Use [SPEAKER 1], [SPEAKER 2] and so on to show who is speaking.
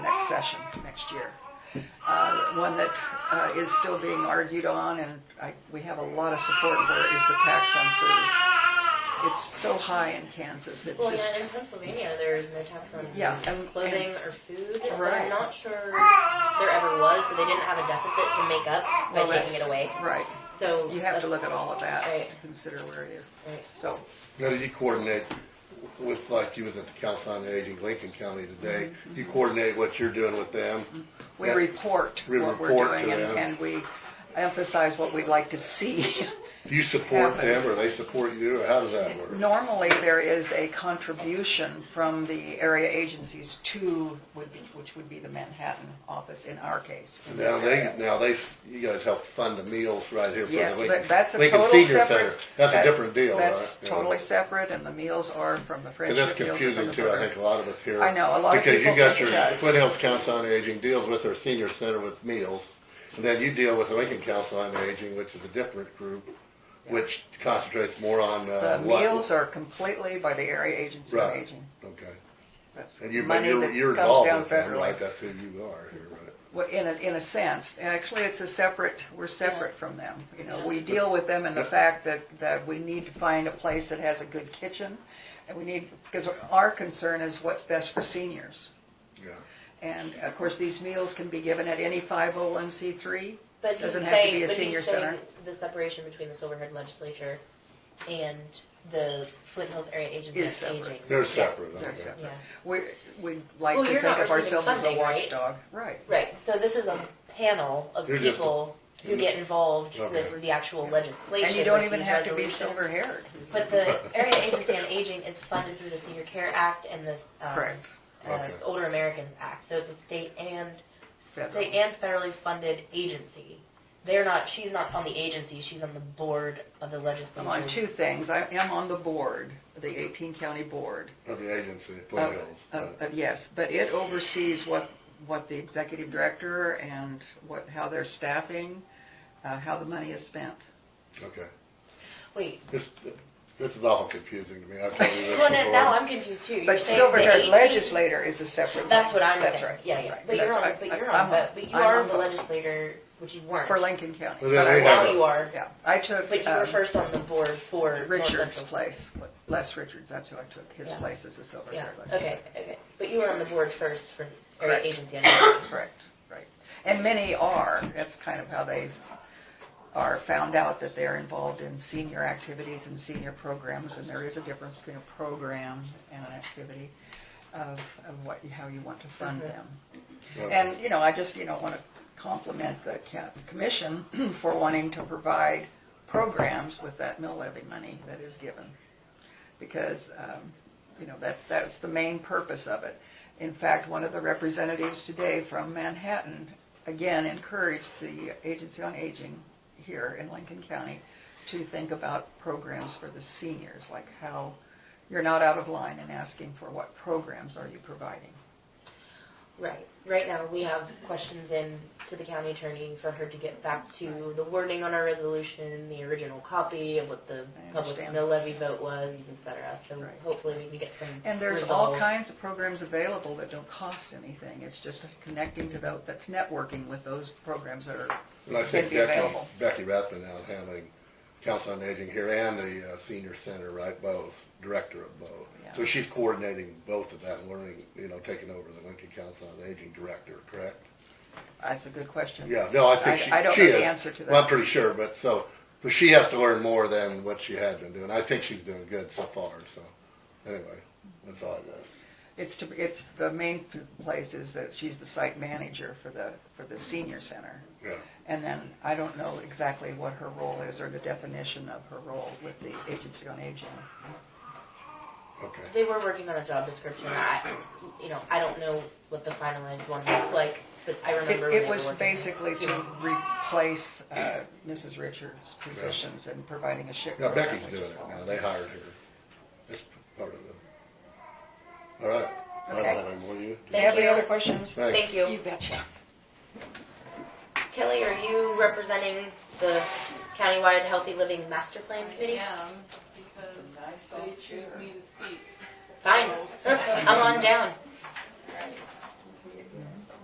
[SPEAKER 1] session next year. Uh, one that uh, is still being argued on, and I, we have a lot of support for, is the tax on food. It's so high in Kansas. It's
[SPEAKER 2] Well,
[SPEAKER 1] just
[SPEAKER 2] yeah, in Pennsylvania, there is no tax on
[SPEAKER 1] Yeah, and-
[SPEAKER 2] clothing or food. and
[SPEAKER 1] Right.
[SPEAKER 2] I'm not sure there ever was, so they didn't have a deficit to make up by
[SPEAKER 1] well,
[SPEAKER 2] taking
[SPEAKER 1] that's-
[SPEAKER 2] it away.
[SPEAKER 1] Right.
[SPEAKER 2] So
[SPEAKER 1] You have to
[SPEAKER 2] that's-
[SPEAKER 1] look at all of that
[SPEAKER 2] Right.
[SPEAKER 1] to consider where it is.
[SPEAKER 2] Right.
[SPEAKER 1] So
[SPEAKER 3] Now, did you coordinate with, like, you was at the Council on Aging, Lincoln County today? You
[SPEAKER 1] Mm-hmm.
[SPEAKER 3] coordinate what you're doing with them?
[SPEAKER 1] we
[SPEAKER 3] Yeah.
[SPEAKER 1] report
[SPEAKER 3] We
[SPEAKER 1] what we're
[SPEAKER 3] report
[SPEAKER 1] doing,
[SPEAKER 3] to
[SPEAKER 1] and,
[SPEAKER 3] them.
[SPEAKER 1] and we emphasize what we'd like to see.
[SPEAKER 3] Do you support
[SPEAKER 1] Happen.
[SPEAKER 3] them, or they support you, or how does that work?
[SPEAKER 1] Normally, there is a contribution from the area agencies to, would be, which would be the Manhattan office in our case. in this
[SPEAKER 3] Now, they,
[SPEAKER 1] area.
[SPEAKER 3] now they, s- you guys help fund the meals right here for
[SPEAKER 1] Yeah,
[SPEAKER 3] the Lincoln,
[SPEAKER 1] but that's a
[SPEAKER 3] Lincoln
[SPEAKER 1] total
[SPEAKER 3] Senior Center.
[SPEAKER 1] separate.
[SPEAKER 3] That's a
[SPEAKER 1] that-
[SPEAKER 3] different deal, right?
[SPEAKER 1] That's
[SPEAKER 3] Yeah.
[SPEAKER 1] totally separate, and the meals are from the
[SPEAKER 3] And
[SPEAKER 1] Friendship.
[SPEAKER 3] that's
[SPEAKER 1] meals are from
[SPEAKER 3] confusing
[SPEAKER 1] the
[SPEAKER 3] too, I
[SPEAKER 1] Burger.
[SPEAKER 3] think a lot of us here.
[SPEAKER 1] I know, a lot of people
[SPEAKER 3] Because
[SPEAKER 1] think
[SPEAKER 3] you
[SPEAKER 1] it
[SPEAKER 3] got your
[SPEAKER 1] does.
[SPEAKER 3] Flint Hills Council on Aging deals with their senior center with meals, and then you deal with the Lincoln Council on Aging, which is a different group, which concentrates more on, uh,
[SPEAKER 1] The
[SPEAKER 3] what?
[SPEAKER 1] meals are completely by the area agency of
[SPEAKER 3] Right,
[SPEAKER 1] aging.
[SPEAKER 3] okay.
[SPEAKER 1] That's
[SPEAKER 3] And you, but
[SPEAKER 1] money
[SPEAKER 3] you're,
[SPEAKER 1] that
[SPEAKER 3] you're
[SPEAKER 1] comes
[SPEAKER 3] involved
[SPEAKER 1] down
[SPEAKER 3] with them, right?
[SPEAKER 1] federally.
[SPEAKER 3] That's who you are here, right?
[SPEAKER 1] Well, in a, in a sense, actually, it's a separate, we're separate from them. You know, we deal with them in the fact that, that we need to find a place that has a good kitchen. And we need, because our concern is what's best for seniors.
[SPEAKER 3] Yeah.
[SPEAKER 1] And of course, these meals can be given at any 501c3.
[SPEAKER 2] But he's
[SPEAKER 1] Doesn't have to
[SPEAKER 2] saying,
[SPEAKER 1] be a
[SPEAKER 2] but
[SPEAKER 1] senior
[SPEAKER 2] he's saying
[SPEAKER 1] center.
[SPEAKER 2] the separation between the Silverhead Legislature and the Flint Hills Area Agency
[SPEAKER 1] Is
[SPEAKER 2] on
[SPEAKER 1] separate.
[SPEAKER 2] Aging.
[SPEAKER 3] They're separate,
[SPEAKER 1] They're
[SPEAKER 3] okay.
[SPEAKER 1] separate.
[SPEAKER 2] Yeah.
[SPEAKER 1] We, we like
[SPEAKER 2] Well,
[SPEAKER 1] to
[SPEAKER 2] you're
[SPEAKER 1] think
[SPEAKER 2] not
[SPEAKER 1] of
[SPEAKER 2] receiving
[SPEAKER 1] ourselves as a
[SPEAKER 2] funding, right?
[SPEAKER 1] watchdog. Right.
[SPEAKER 2] Right. So this is a panel of
[SPEAKER 3] You're just a-
[SPEAKER 2] people who get involved
[SPEAKER 3] Okay.
[SPEAKER 2] with the actual legislation.
[SPEAKER 1] And you don't
[SPEAKER 2] with
[SPEAKER 1] even
[SPEAKER 2] these
[SPEAKER 1] have to be
[SPEAKER 2] resolutions.
[SPEAKER 1] silver haired.
[SPEAKER 2] But the Area Agency on Aging is funded through the Senior Care Act and this um,
[SPEAKER 1] Correct.
[SPEAKER 2] uh,
[SPEAKER 3] Okay.
[SPEAKER 2] this Older Americans Act. So it's a state and
[SPEAKER 1] Federal.
[SPEAKER 2] state and federally funded agency. They're not. She's not on the agency. She's on the board of the legislature.
[SPEAKER 1] I'm on two things. I am on the board, the 18 county board.
[SPEAKER 3] Of the agency, Flint
[SPEAKER 1] of-
[SPEAKER 3] Hills.
[SPEAKER 1] of-
[SPEAKER 3] right.
[SPEAKER 1] of- Yes, but it oversees what, what the executive director and what, how they're staffing, uh, how the money is spent.
[SPEAKER 3] Okay.
[SPEAKER 2] Wait.
[SPEAKER 3] This, this is awful confusing to me. I've told you this
[SPEAKER 2] Well, no,
[SPEAKER 3] before.
[SPEAKER 2] now I'm confused too. You're
[SPEAKER 1] But
[SPEAKER 2] saying
[SPEAKER 1] silver
[SPEAKER 2] the
[SPEAKER 1] haired
[SPEAKER 2] 18
[SPEAKER 1] legislator is a separate.
[SPEAKER 2] That's
[SPEAKER 1] one.
[SPEAKER 2] what I'm
[SPEAKER 1] That's
[SPEAKER 2] saying.
[SPEAKER 1] right,
[SPEAKER 2] Yeah, yeah.
[SPEAKER 1] right.
[SPEAKER 2] But you're
[SPEAKER 1] That's-
[SPEAKER 2] on.
[SPEAKER 1] I-
[SPEAKER 2] But you're
[SPEAKER 1] I-
[SPEAKER 2] on.
[SPEAKER 1] I'm
[SPEAKER 2] But, but you
[SPEAKER 1] I'm
[SPEAKER 2] are
[SPEAKER 1] on
[SPEAKER 2] the legislator, which you weren't.
[SPEAKER 1] For Lincoln County.
[SPEAKER 3] Well, then
[SPEAKER 1] I
[SPEAKER 3] we
[SPEAKER 1] was-
[SPEAKER 3] have
[SPEAKER 2] Now you are.
[SPEAKER 1] Yeah, I took.
[SPEAKER 2] But you
[SPEAKER 1] um,
[SPEAKER 2] were first on the board for North
[SPEAKER 1] Richard's
[SPEAKER 2] Central.
[SPEAKER 1] place, what- Les Richards, that's who I took, his
[SPEAKER 2] Yeah.
[SPEAKER 1] place as a silver
[SPEAKER 2] Yeah.
[SPEAKER 1] haired legislator.
[SPEAKER 2] Okay. Okay. But you were on the board first for Area
[SPEAKER 1] Correct.
[SPEAKER 2] Agency on Aging.
[SPEAKER 1] Correct, right. And many are, that's kind of how they are found out that they're involved in senior activities and senior programs, and there is a difference between a program and an activity of, of what, how you want to fund them.
[SPEAKER 3] Okay.
[SPEAKER 1] And, you know, I just, you know, want to compliment the ca- commission for wanting to provide programs with that mill levy money that is given. Because, um, you know, that, that's the main purpose of it. In fact, one of the representatives today from Manhattan, again, encouraged the Agency on Aging here in Lincoln County to think about programs for the seniors, like how you're not out of line in asking for what programs are you providing.
[SPEAKER 2] Right. Right now, we have questions in to the county attorney for her to get back to the wording on our resolution, the original copy of what the
[SPEAKER 1] I
[SPEAKER 2] public
[SPEAKER 1] understand.
[SPEAKER 2] mill levy vote was, et cetera. So
[SPEAKER 1] Right.
[SPEAKER 2] hopefully we can get some
[SPEAKER 1] And there's all
[SPEAKER 2] resolve.
[SPEAKER 1] kinds of programs available that don't cost anything. It's just connecting to those, that's networking with those programs that are,
[SPEAKER 3] And I
[SPEAKER 1] can
[SPEAKER 3] think
[SPEAKER 1] be
[SPEAKER 3] Becky,
[SPEAKER 1] available.
[SPEAKER 3] Becky Rathman now is handling Council on Aging here and the uh, Senior Center, right, both, director of both.
[SPEAKER 1] Yeah.
[SPEAKER 3] So she's coordinating both of that and learning, you know, taking over the Lincoln Council on Aging director, correct?
[SPEAKER 1] That's a good question.
[SPEAKER 3] Yeah, no, I
[SPEAKER 1] I-
[SPEAKER 3] think she, she is.
[SPEAKER 1] I don't know the answer to
[SPEAKER 3] Well,
[SPEAKER 1] that.
[SPEAKER 3] I'm pretty sure, but so, but she has to learn more than what she had been doing. I think she's doing good so far, so, anyway, that's all I got.
[SPEAKER 1] It's to, it's, the main p- place is that she's the site manager for the, for the senior center.
[SPEAKER 3] Yeah,
[SPEAKER 1] And then I don't know exactly what her role is or the definition of her role with the Agency on Aging.
[SPEAKER 3] okay.
[SPEAKER 2] They were working on a job description. I, you know, I don't know what the finalized one looks like, but I
[SPEAKER 1] It,
[SPEAKER 2] remember when they
[SPEAKER 1] it
[SPEAKER 2] were
[SPEAKER 1] was
[SPEAKER 2] working.
[SPEAKER 1] basically to replace, uh, Mrs. Richards' positions and providing a shift.
[SPEAKER 3] Yeah,
[SPEAKER 1] program,
[SPEAKER 3] Becky's
[SPEAKER 1] which
[SPEAKER 3] doing
[SPEAKER 1] is
[SPEAKER 3] it
[SPEAKER 1] all.
[SPEAKER 3] now, they hired her. That's part of it. All right, I don't
[SPEAKER 1] Okay.
[SPEAKER 3] have any more, you?
[SPEAKER 1] Do you have any other questions?
[SPEAKER 3] Thanks.
[SPEAKER 2] Thank you.
[SPEAKER 1] You betcha.
[SPEAKER 2] Kelly, are you representing the countywide healthy living master plan committee?
[SPEAKER 4] am, because they choose me to speak.
[SPEAKER 2] Fine.
[SPEAKER 4] So,
[SPEAKER 2] I'm on down.